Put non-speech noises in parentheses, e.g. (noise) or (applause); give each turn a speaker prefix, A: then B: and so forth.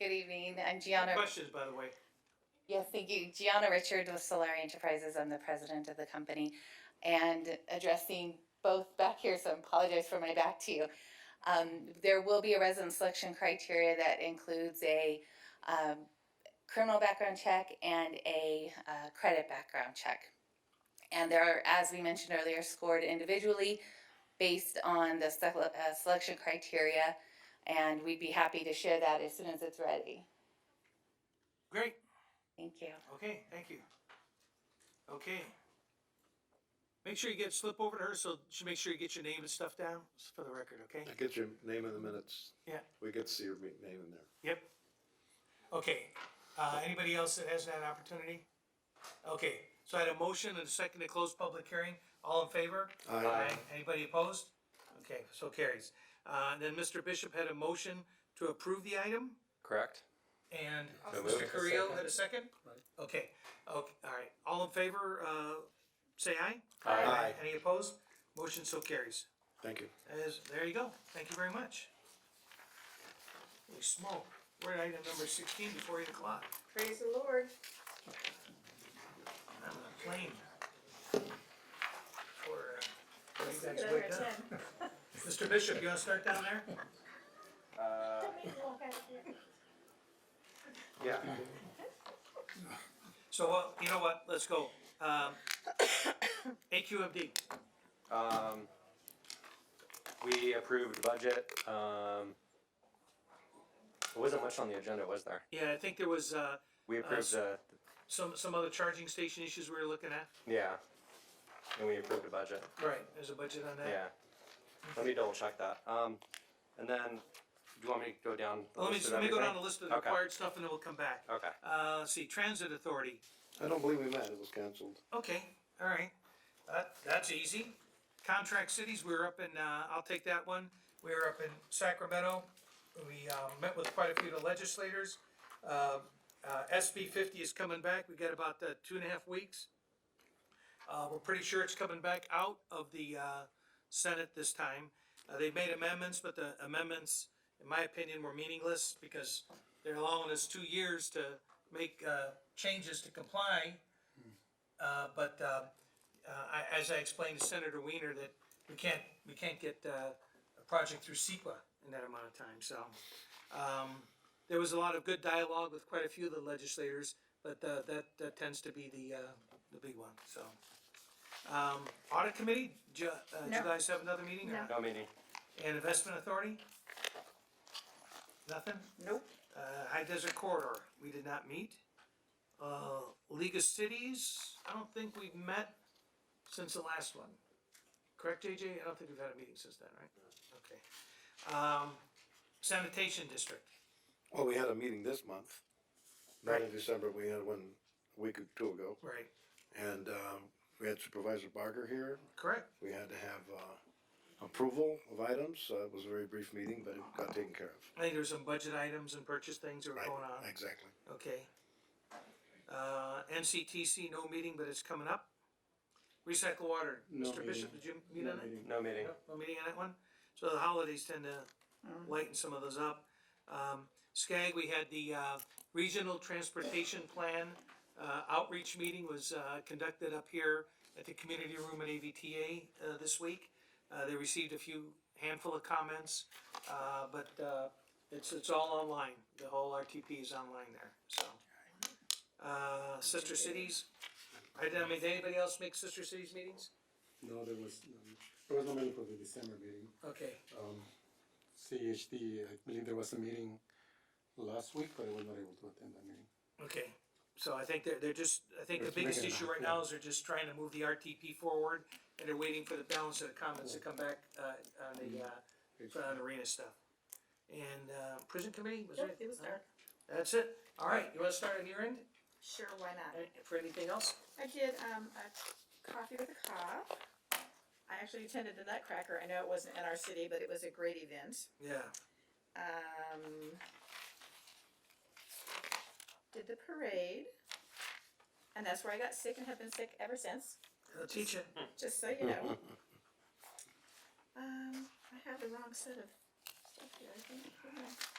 A: Good evening, I'm Gianna.
B: Questions, by the way.
A: Yes, thank you. Gianna Richard with Solari Enterprises. I'm the president of the company and addressing both back here, so I apologize for my back to you. Um, there will be a resident selection criteria that includes a um, criminal background check and a uh, credit background check. And they are, as we mentioned earlier, scored individually based on the sele- uh, selection criteria. And we'd be happy to share that as soon as it's ready.
B: Great,
A: Thank you.
B: okay, thank you. Okay. Make sure you get, slip over to her, so she, make sure you get your name and stuff down, s- for the record, okay?
C: Get your name in the minutes.
B: Yeah.
C: We get to see your ma- name in there.
B: Yep. Okay, uh, anybody else that has that opportunity? Okay, so I had a motion and a second to close public hearing, all in favor?
C: Aye.
B: Anybody opposed? Okay, so carries. Uh, and then Mr. Bishop had a motion to approve the item,
D: Correct?
B: and
D: So
B: Mr.
D: moved.
B: Creel had a second? Okay, okay, all right, all in favor, uh, say aye?
C: Aye.
B: Any opposed? Motion so carries.
C: Thank you.
B: As, there you go. Thank you very much. Holy smoke. We're at item number sixteen before eight o'clock.
E: Praise the Lord.
B: I'm on a plane. Or, uh, you guys
E: Another
B: wake up.
E: 10.
B: Mr. Bishop, you wanna start down there?
D: Uh, Yeah.
B: So, uh, you know what? Let's go. Um, (coughs) AQMD.
D: Um, we approved budget, um, there wasn't much on the agenda, was there?
B: Yeah, I think there was, uh,
D: We
B: s-
D: approved the,
B: some, some other charging station issues we were looking at.
D: yeah, and we approved the budget,
B: Right. There's a budget on that.
D: yeah. Let me double check that, um, and then, do you want me to go down? the
B: Let me,
D: list of
B: let me go down the
D: everything?
B: list of the
D: Okay.
B: required stuff and then we'll come back.
D: Okay,
B: Uh, let's see, Transit Authority.
C: I don't believe we met. It was canceled.
B: Okay, all right. That, that's easy. Contract cities, we were up in, uh, I'll take that one. We were up in Sacramento. We, um, met with quite a few of the legislators. Uh, uh, SB fifty is coming back. We got about, uh, two and a half weeks. Uh, we're pretty sure it's coming back out of the, uh, Senate this time. Uh, they made amendments, but the amendments, in my opinion, were meaningless because they're allowing us two years to make, uh, changes to comply. Uh, but, uh, uh, I, as I explained to Senator Weiner, that we can't, we can't get, uh, a project through SEQA in that amount of time, so. Um, there was a lot of good dialogue with quite a few of the legislators, but, uh, that, that tends to be the, uh, the big one, so. Um, audit committee, Ju- uh, do you
E: No.
B: guys have another meeting or?
D: no meeting,
B: And investment authority? Nothing?
E: Nope.
B: Uh, High Desert Corridor, we did not meet. Uh, League of Cities, I don't think we've met since the last one. Correct, JJ? I don't think we've had a meeting since then, right? Okay. Um, sanitation district,
C: Well, we had a meeting this month. Not in December. We had one a week or two ago.
B: right,
C: And, um, we had Supervisor Barker here.
B: correct?
C: We had to have, uh, approval of items. Uh, it was a very brief meeting, but it got taken care of.
B: I think there's some budget items and purchase things that were
C: Right.
B: going on,
C: Exactly.
B: okay? Uh, NCTC, no meeting, but it's coming up. Recycle water,
C: No
B: Mr. Bishop, did you meet on it?
D: no meeting,
B: No meeting on that one? So the holidays tend to lighten some of those up. Um, Skag, we had the, uh, Regional Transportation Plan, uh, outreach meeting was, uh, conducted up here at the community room at AVTA, uh, this week. Uh, they received a few handful of comments, uh, but, uh, it's, it's all online. The whole RTP is online there, so. Uh, Sister Cities, I, I mean, did anybody else make Sister Cities meetings?
F: No, there was, um, there was no meeting for the December meeting.
B: Okay.
F: Um, CHD, I believe there was a meeting last week, but I was not able to attend that meeting.
B: Okay, so I think they're, they're just, I think the
F: Just
B: biggest
F: making it
B: issue right
F: happen.
B: now is they're just trying to move the RTP forward, and they're waiting for the balance of the comments to come back, uh, on the, uh, on arena stuff. And, uh, prison committee, was
E: Yep,
B: it?
E: it was dark.
B: That's it, all right, you wanna start on your end,
E: Sure, why not?
B: Any- for anything else?
E: I did, um, a coffee with a cop. I actually attended the Nutcracker. I know it wasn't in our city, but it was a great event.
B: Yeah,
E: Um, did the parade. And that's where I got sick and have been sick ever since,
B: I'll teach it,
E: just so you
B: (laughs)
E: know. Um, I have the wrong set of stuff here, I think. Hold on.